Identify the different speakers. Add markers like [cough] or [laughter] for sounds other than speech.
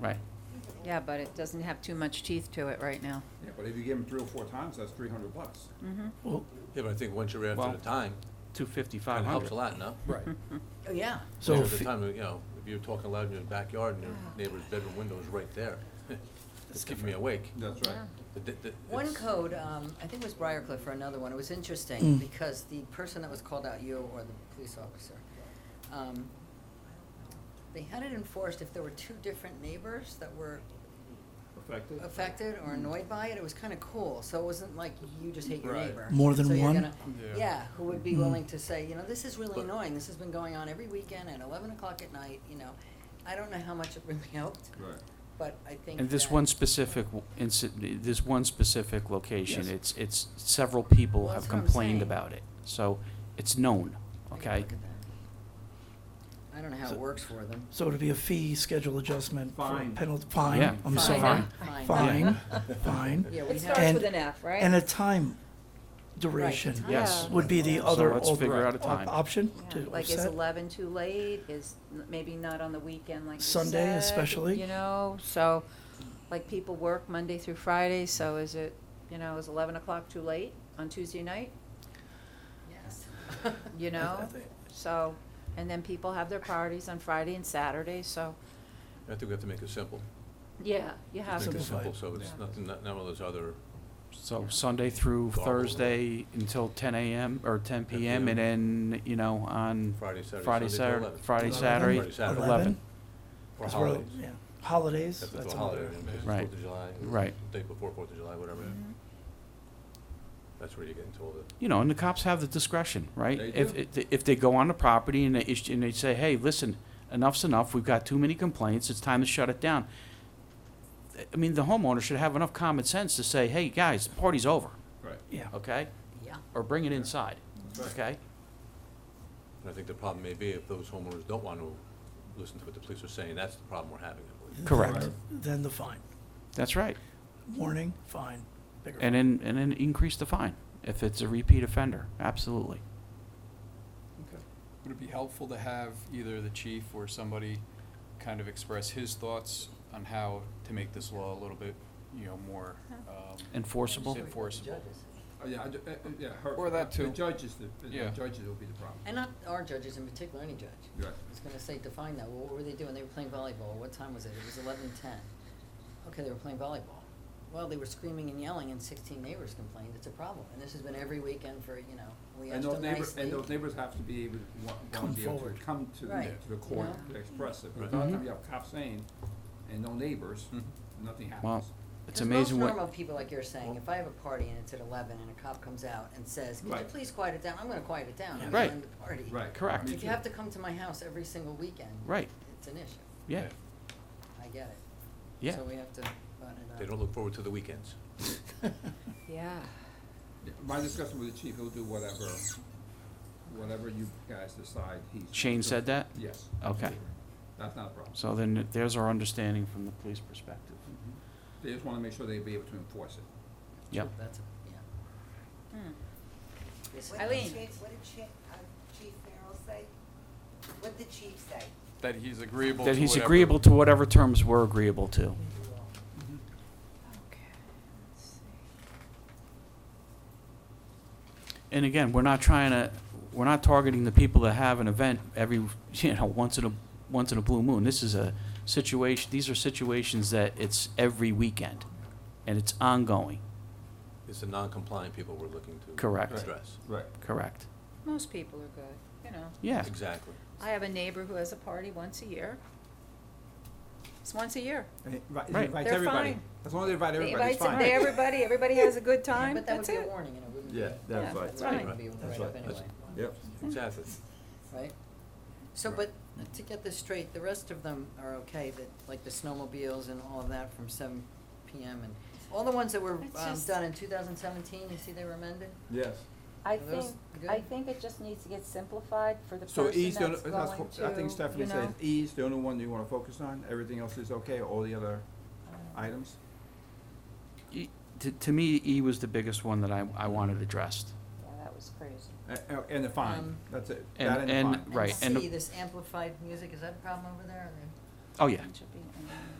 Speaker 1: right?
Speaker 2: Yeah, but it doesn't have too much teeth to it right now.
Speaker 3: Yeah, but if you give them three or four times, that's three hundred bucks.
Speaker 2: Mm-hmm.
Speaker 1: Well,
Speaker 4: Yeah, but I think once you're
Speaker 1: Well,
Speaker 4: after the time,
Speaker 1: two fifty,
Speaker 4: it
Speaker 1: five
Speaker 4: helps a
Speaker 1: hundred.
Speaker 4: lot, no?
Speaker 5: Right.
Speaker 2: Oh, yeah.
Speaker 1: So,
Speaker 4: Because at
Speaker 1: fi-
Speaker 4: the time, you know, if you're talking loud in your backyard and your neighbor's bedroom window is right there, [laughs] it's keeping me awake.
Speaker 3: That's right.
Speaker 4: The- the- the-
Speaker 6: One
Speaker 4: it's-
Speaker 6: code, um, I think it was Briarcliff for another one, it was interesting,
Speaker 5: Mm.
Speaker 6: because the person that was called out, you or the police officer, um, they had it enforced if there were two different neighbors that were
Speaker 3: Effective.
Speaker 6: affected or
Speaker 4: Mm.
Speaker 6: annoyed by it, it was kinda cool, so it wasn't like you just hate your
Speaker 4: Right.
Speaker 6: neighbor.
Speaker 5: More than
Speaker 6: So you're
Speaker 5: one?
Speaker 6: gonna-
Speaker 4: Yeah.
Speaker 6: Yeah, who would be
Speaker 5: Mm.
Speaker 6: willing to say, you know, this is really
Speaker 4: But-
Speaker 6: annoying, this has been going on every weekend at eleven o'clock at night, you know, I don't know how much it really [laughs] helped,
Speaker 3: Right.
Speaker 6: but I think
Speaker 1: and this
Speaker 6: that-
Speaker 1: one specific w- inci- this one specific location,
Speaker 5: Yes.
Speaker 1: it's, it's, several people
Speaker 6: Well,
Speaker 1: have
Speaker 6: that's what I'm
Speaker 1: complained
Speaker 6: saying.
Speaker 1: about it. So, it's known,
Speaker 6: I can
Speaker 1: okay?
Speaker 6: look at that. I don't know how
Speaker 5: So-
Speaker 6: it works for them.
Speaker 5: So it'd be a fee schedule adjustment for
Speaker 3: Fine.
Speaker 5: penalty, fine,
Speaker 1: Yeah.
Speaker 5: I'm
Speaker 6: Fine.
Speaker 5: sorry.
Speaker 6: Fine.
Speaker 5: Fine,
Speaker 2: [laughs]
Speaker 5: fine.
Speaker 6: Yeah, we
Speaker 2: It
Speaker 6: have.
Speaker 2: starts
Speaker 5: And-
Speaker 2: with an F, right?
Speaker 5: And a time
Speaker 6: Right,
Speaker 5: duration
Speaker 6: the time.
Speaker 1: Yes.
Speaker 5: would be the other
Speaker 1: let's figure
Speaker 5: alter-
Speaker 1: out a time.
Speaker 5: op- option
Speaker 2: Yeah,
Speaker 5: to
Speaker 2: Like, is
Speaker 5: offset.
Speaker 2: eleven too late? Is n- maybe not on the weekend like you
Speaker 5: Sunday
Speaker 2: said,
Speaker 5: especially.
Speaker 2: You know, so, like, people work Monday through Friday, so is it, you know, is eleven o'clock too late on Tuesday night?
Speaker 6: [laughs] Yes.
Speaker 2: You know, so, and then people have their parties on Friday and Saturday, so,
Speaker 4: I think we have to make it simple.
Speaker 2: yeah, you have
Speaker 4: Just
Speaker 2: to.
Speaker 4: Make it
Speaker 5: Simplify
Speaker 4: simple,
Speaker 5: it.
Speaker 4: so it's
Speaker 2: Yeah.
Speaker 4: nothing, not none of those other,
Speaker 1: So Sunday through
Speaker 4: Garble.
Speaker 1: Thursday until ten AM or ten
Speaker 4: 10
Speaker 1: PM and
Speaker 4: PM.
Speaker 1: then, you know, on
Speaker 4: Friday, Saturday,
Speaker 1: Friday,
Speaker 4: Sunday till
Speaker 1: Saturday,
Speaker 4: 11.
Speaker 1: Friday,
Speaker 5: Eleven.
Speaker 1: Saturday,
Speaker 4: Friday, Saturday.
Speaker 1: eleven.
Speaker 4: or
Speaker 5: 'cause we're-
Speaker 4: holidays.
Speaker 5: yeah. Holidays,
Speaker 4: Except if it's
Speaker 5: that's
Speaker 4: a
Speaker 5: another.
Speaker 4: holiday, maybe it's
Speaker 1: Right.
Speaker 4: Fourth of July,
Speaker 1: Right.
Speaker 4: day before Fourth of July, whatever. That's where you get into all the.
Speaker 1: You know, and the cops have the discretion, right?
Speaker 3: They
Speaker 1: If,
Speaker 3: do.
Speaker 1: if- if they go on the property and they, ish- and they say, hey, listen, enough's enough, we've got too many complaints, it's time to shut it down. I mean, the homeowner should have enough common sense to say, hey, guys, the party's over,
Speaker 3: Right.
Speaker 5: Yeah,
Speaker 1: okay?
Speaker 6: Yeah.
Speaker 1: Or bring it inside,
Speaker 3: That's right.
Speaker 1: okay?
Speaker 4: And I think the problem may be if those homeowners don't want to listen to what the police are saying, that's the problem we're having, I believe.
Speaker 1: Correct,
Speaker 3: Right.
Speaker 5: then the fine,
Speaker 1: that's right.
Speaker 5: warning, fine, bigger.
Speaker 1: And then, and then increase the fine if it's a repeat offender, absolutely.
Speaker 7: Okay. Would it be helpful to have either the chief or somebody kind of express his thoughts on how to make this law a little bit, you know, more, um,
Speaker 1: Enforceable?
Speaker 7: enforceable?
Speaker 3: Oh, yeah, I ju- uh, uh, yeah, her.
Speaker 7: Or that
Speaker 3: The
Speaker 7: too.
Speaker 3: judges, the, the
Speaker 7: Yeah.
Speaker 3: judges will be the problem.
Speaker 6: And not our judges in particular, any judge.
Speaker 3: Right.
Speaker 6: I was gonna say, define that, well, what were they doing? They were playing volleyball, what time was it? It was eleven ten. Okay, they were playing volleyball. Well, they were screaming and yelling and sixteen neighbors complained, it's a problem, and this has been every weekend for, you know, we
Speaker 3: And
Speaker 6: asked
Speaker 3: those
Speaker 6: them
Speaker 3: neighbors,
Speaker 6: nicely.
Speaker 3: and those neighbors have to be able, wa-
Speaker 5: Come
Speaker 3: want to be able to
Speaker 5: forward.
Speaker 3: come to, the-
Speaker 6: Right.
Speaker 3: to the court
Speaker 6: Yeah.
Speaker 3: to express it. But
Speaker 7: Mm-hmm.
Speaker 4: Right.
Speaker 3: if not,
Speaker 1: Mhm.
Speaker 3: you have cops saying, and no neighbors,
Speaker 7: Mhm.
Speaker 3: nothing happens.
Speaker 1: Mm-hmm. Well, it's
Speaker 6: 'Cause
Speaker 1: amazing
Speaker 6: most normal
Speaker 1: what,
Speaker 6: people, like you're saying, if I have a party and it's at eleven and a cop comes out and says, could you
Speaker 3: Right.
Speaker 6: please quiet it down? I'm gonna quiet it down, I'm
Speaker 1: Right.
Speaker 6: going to the party.
Speaker 3: Right.
Speaker 1: Correct.
Speaker 3: Me
Speaker 6: If
Speaker 3: too.
Speaker 6: you have to come to my house every single weekend.
Speaker 1: Right.
Speaker 6: It's an issue.
Speaker 1: yeah,
Speaker 6: I get it.
Speaker 1: yeah.
Speaker 6: So we have to button it up.
Speaker 4: They don't look forward to the weekends.
Speaker 5: [laughs]
Speaker 2: Yeah.
Speaker 3: Yeah, My discussion with the chief, he'll do whatever, whatever you guys decide he's.
Speaker 1: Shane said that?
Speaker 3: Yes.
Speaker 1: Okay.
Speaker 3: absolutely. That's not a problem.
Speaker 1: So then there's our understanding from the police perspective. Mm-hmm.
Speaker 3: They just want to make sure they be able to enforce it.
Speaker 1: Yep.
Speaker 6: That's, a- yeah.
Speaker 2: Hmm.
Speaker 6: This-
Speaker 8: What did
Speaker 2: Eileen.
Speaker 8: Chief- What did Chief, uh, Chief Farrell say? What did the chief say?
Speaker 7: That he's agreeable to
Speaker 1: That he's
Speaker 7: whatever-
Speaker 1: agreeable to whatever terms we're agreeable to.
Speaker 2: Okay, let's see.
Speaker 1: And again, we're not trying to, we're not targeting the people that have an event every, [laughs] you know, once in a, once in a blue moon. This is a situation, these are situations that it's every weekend, and it's ongoing,
Speaker 4: It's the non-compliant people we're looking to.
Speaker 1: Correct. Right.
Speaker 4: Address.
Speaker 3: Right.
Speaker 1: correct?
Speaker 2: Most people are good, you know.
Speaker 1: Yeah,
Speaker 4: Exactly.
Speaker 2: I have a neighbor who has a party once a year. It's once a year.
Speaker 1: Right.
Speaker 3: Right, invite
Speaker 2: They're
Speaker 3: everybody.
Speaker 2: fine.
Speaker 3: As long as they invite
Speaker 2: They
Speaker 3: everybody, it's
Speaker 2: invite
Speaker 3: fine.
Speaker 2: some- they- everybody, everybody has a good time,
Speaker 6: But that would
Speaker 2: that's
Speaker 6: be a
Speaker 2: it.
Speaker 6: warning and it wouldn't be.
Speaker 3: Yeah, that's
Speaker 2: [laughs] Yeah,
Speaker 3: right.
Speaker 2: that's
Speaker 6: It
Speaker 2: right.
Speaker 6: wouldn't be a
Speaker 3: That's
Speaker 6: write up
Speaker 3: right. That's-
Speaker 6: anyway,
Speaker 3: Yep.
Speaker 4: Exactly.
Speaker 6: right? So, but
Speaker 3: Right.
Speaker 6: to get this straight, the rest of them are okay, that, like the snowmobiles and all of that from seven PM and all the ones that were,
Speaker 2: It's
Speaker 6: um,
Speaker 2: just-
Speaker 6: done in two thousand seventeen, you see they were amended?
Speaker 3: Yes.
Speaker 2: I
Speaker 6: Are those
Speaker 2: think,
Speaker 6: good?
Speaker 2: I think it just needs to get simplified for the
Speaker 3: So
Speaker 2: person
Speaker 3: E's, the
Speaker 2: that's
Speaker 3: only- that's
Speaker 2: going
Speaker 3: what-
Speaker 2: to,
Speaker 3: I think Stephanie
Speaker 2: you
Speaker 3: said E
Speaker 2: know.
Speaker 3: E's the only one you want to focus on, everything else is okay, all the other
Speaker 2: Uh,
Speaker 3: items?
Speaker 1: E- to, to me, E was the biggest one that I, I wanted addressed.
Speaker 2: Yeah, that was crazy.
Speaker 3: A- a- And the fine,
Speaker 6: Um,
Speaker 3: that's it,
Speaker 1: And-
Speaker 3: that and the
Speaker 1: and-
Speaker 3: fine.
Speaker 1: Right, and
Speaker 6: And
Speaker 1: the-
Speaker 6: C, this amplified music, is that a problem over there?
Speaker 1: Oh, yeah,
Speaker 2: It should be, um,